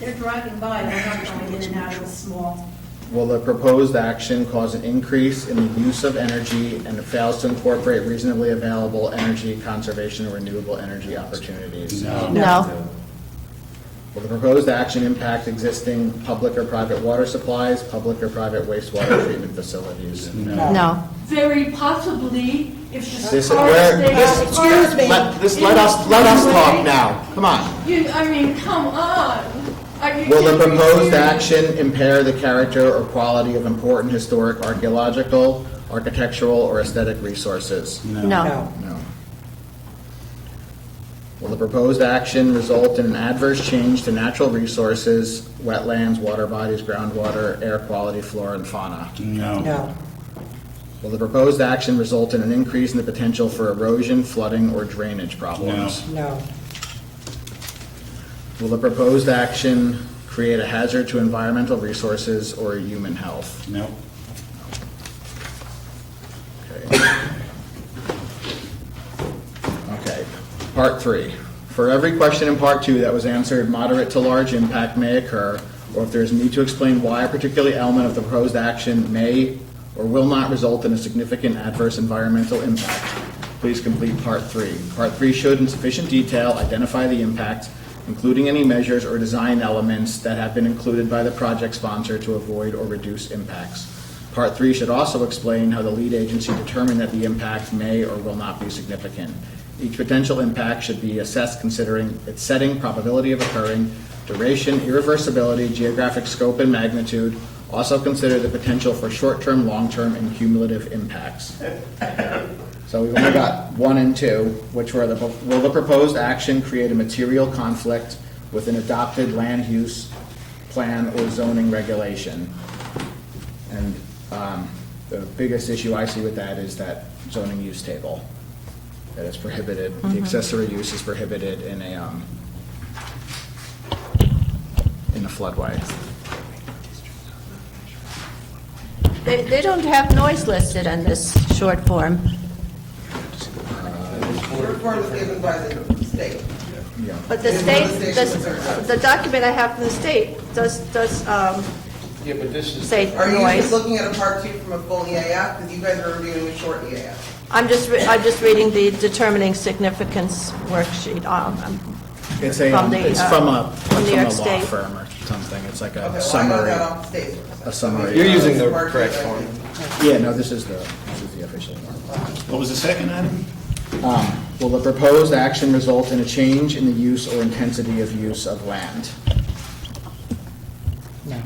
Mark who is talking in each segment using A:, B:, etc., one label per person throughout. A: They're driving by, they're not going in and out of the small.
B: Will the proposed action cause an increase in the use of energy and fails to incorporate reasonably available energy conservation and renewable energy opportunities?
C: No.
B: Will the proposed action impact existing public or private water supplies, public or private wastewater treatment facilities?
C: No.
A: Very possibly, if the
B: This is
A: cars
B: where,
A: stay
B: this,
A: out of the
B: excuse me, let, this, let us, let us talk now, come on.
A: You, I mean, come on. Are you
B: Will the
A: taking me
B: proposed
A: serious?
B: action impair the character or quality of important historic archaeological, architectural, or aesthetic resources?
C: No.
B: No. Will the proposed action result in an adverse change to natural resources, wetlands, water bodies, groundwater, air quality, flora, and fauna?
D: No.
B: Will the proposed action result in an increase in the potential for erosion, flooding, or drainage problems?
D: No.
B: Will the proposed action create a hazard to environmental resources or human health?
E: No.
B: Okay. Part three. For every question in part two that was answered, moderate to large impact may occur, or if there is need to explain why a particular element of the proposed action may or will not result in a significant adverse environmental impact, please complete part three. Part three should, in sufficient detail, identify the impacts, including any measures or design elements that have been included by the project sponsor to avoid or reduce impacts. Part three should also explain how the lead agency determined that the impact may or will not be significant. Each potential impact should be assessed considering its setting, probability of occurring, duration, irreversibility, geographic scope and magnitude. Also consider the potential for short-term, long-term, and cumulative impacts. So we've only got one and two, which were the, will the proposed action create a material conflict with an adopted land use plan or zoning regulation? And um, the biggest issue I see with that is that zoning use table, that is prohibited,
C: Mm-hmm.
B: the accessory use is prohibited in a, um, in a floodway.
C: They, they don't have noise listed on this short form.
F: Report is given by the state.
B: Yeah.
C: But the state, the, the document I have from the state does, does, um,
G: Yeah, but this is,
C: say
F: Are you just
C: noise.
F: looking at a part two from a full EAF? Because you guys are reviewing a short EAF.
C: I'm just, re- I'm just reading the determining significance worksheet, um, um,
B: It's a,
C: From
B: um,
C: the,
B: it's
C: uh,
B: from a,
C: from New
B: from a
C: York
B: law
C: State.
B: firm or something, it's like
F: Okay,
B: a
F: well, I got
B: summary.
F: that um, off the E state's website.
B: A summary.
G: You're using
F: It's
G: the
F: part two,
G: correct
F: I
G: form.
F: think.
B: Yeah, no, this is the, this is the official one.
E: What was the second item?
B: Will the proposed action result in a change in the use or intensity of use of land?
D: No.
E: I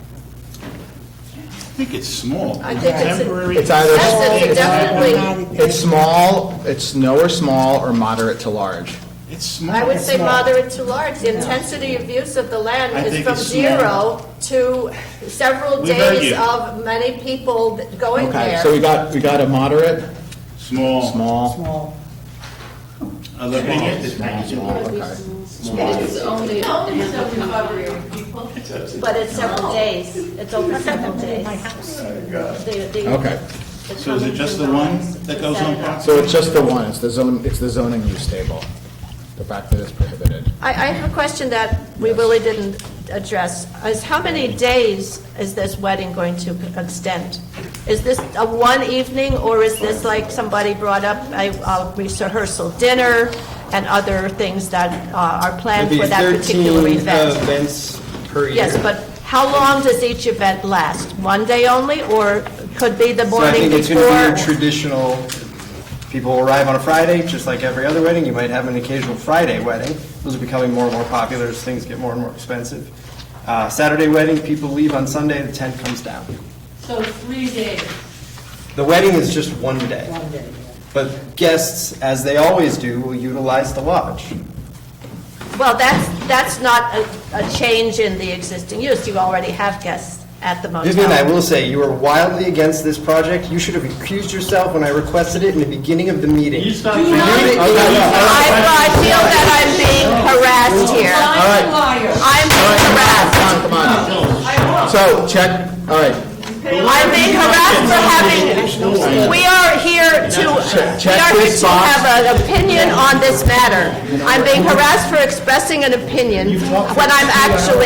E: think it's small.
C: I think it's a-
E: Temporary-
B: It's either-
C: That's a- definitely,
B: It's small, it's no or small, or moderate to large.
E: It's small.
C: I would say moderate to large. The intensity of use of the
E: I
C: land is
E: think
C: from
E: it's
C: zero to several
E: We've heard
C: days
E: you.
C: of many people th- going
B: Okay,
C: there.
B: so we got, we got a moderate,
E: Small.
B: small,
D: Small.
E: I look at it.
B: small, small, okay.
H: It's only
A: No,
H: a
A: only
H: handful of
A: seventy-five-year-old people.
C: But it's
B: Oh.
C: several days. It's over several days. The- the-
B: Okay.
C: the
E: So is it just the
C: common
E: one
C: designs
E: that goes on
C: set up.
B: So it's just the one, it's the zone, it's the zoning use table, the fact that it's prohibited.
C: I, I have a question that we really didn't address, is how many days is this wedding going to extend? Is this a one evening, or is this like somebody brought up a a rehearsal dinner and other things that uh, are planned for that particular
B: uh,
C: event?
G: events per year.
C: Yes, but how long does each event last? One day only, or could be the
G: So I
C: morning
G: think it's going to be
C: before?
G: your traditional, people arrive on a Friday, just like every other wedding. You might have an occasional Friday wedding. Those are becoming more and more popular as things get more and more expensive. Uh, Saturday wedding, people leave on Sunday, the tent comes down.
H: So three days.
G: The wedding is just one day.
D: One day.
G: But guests, as they always do, will utilize the lodge.
C: Well, that's, that's not a, a change in the existing use, you already have guests at the motel.
G: Vivian, I will say, you are wildly against this project. You should have accused yourself when I requested it in the beginning of the meeting.
E: You stop
G: You
E: saying-
G: did it.
E: Oh,
C: I, I feel that I'm being harassed here.
H: I'm a liar.
C: I'm being harassed.
B: Come on, come on. So, check, all right,
C: I'm being harassed for having, we are here to, we are here to have an opinion on this matter. I'm being harassed for expressing an opinion when I'm actually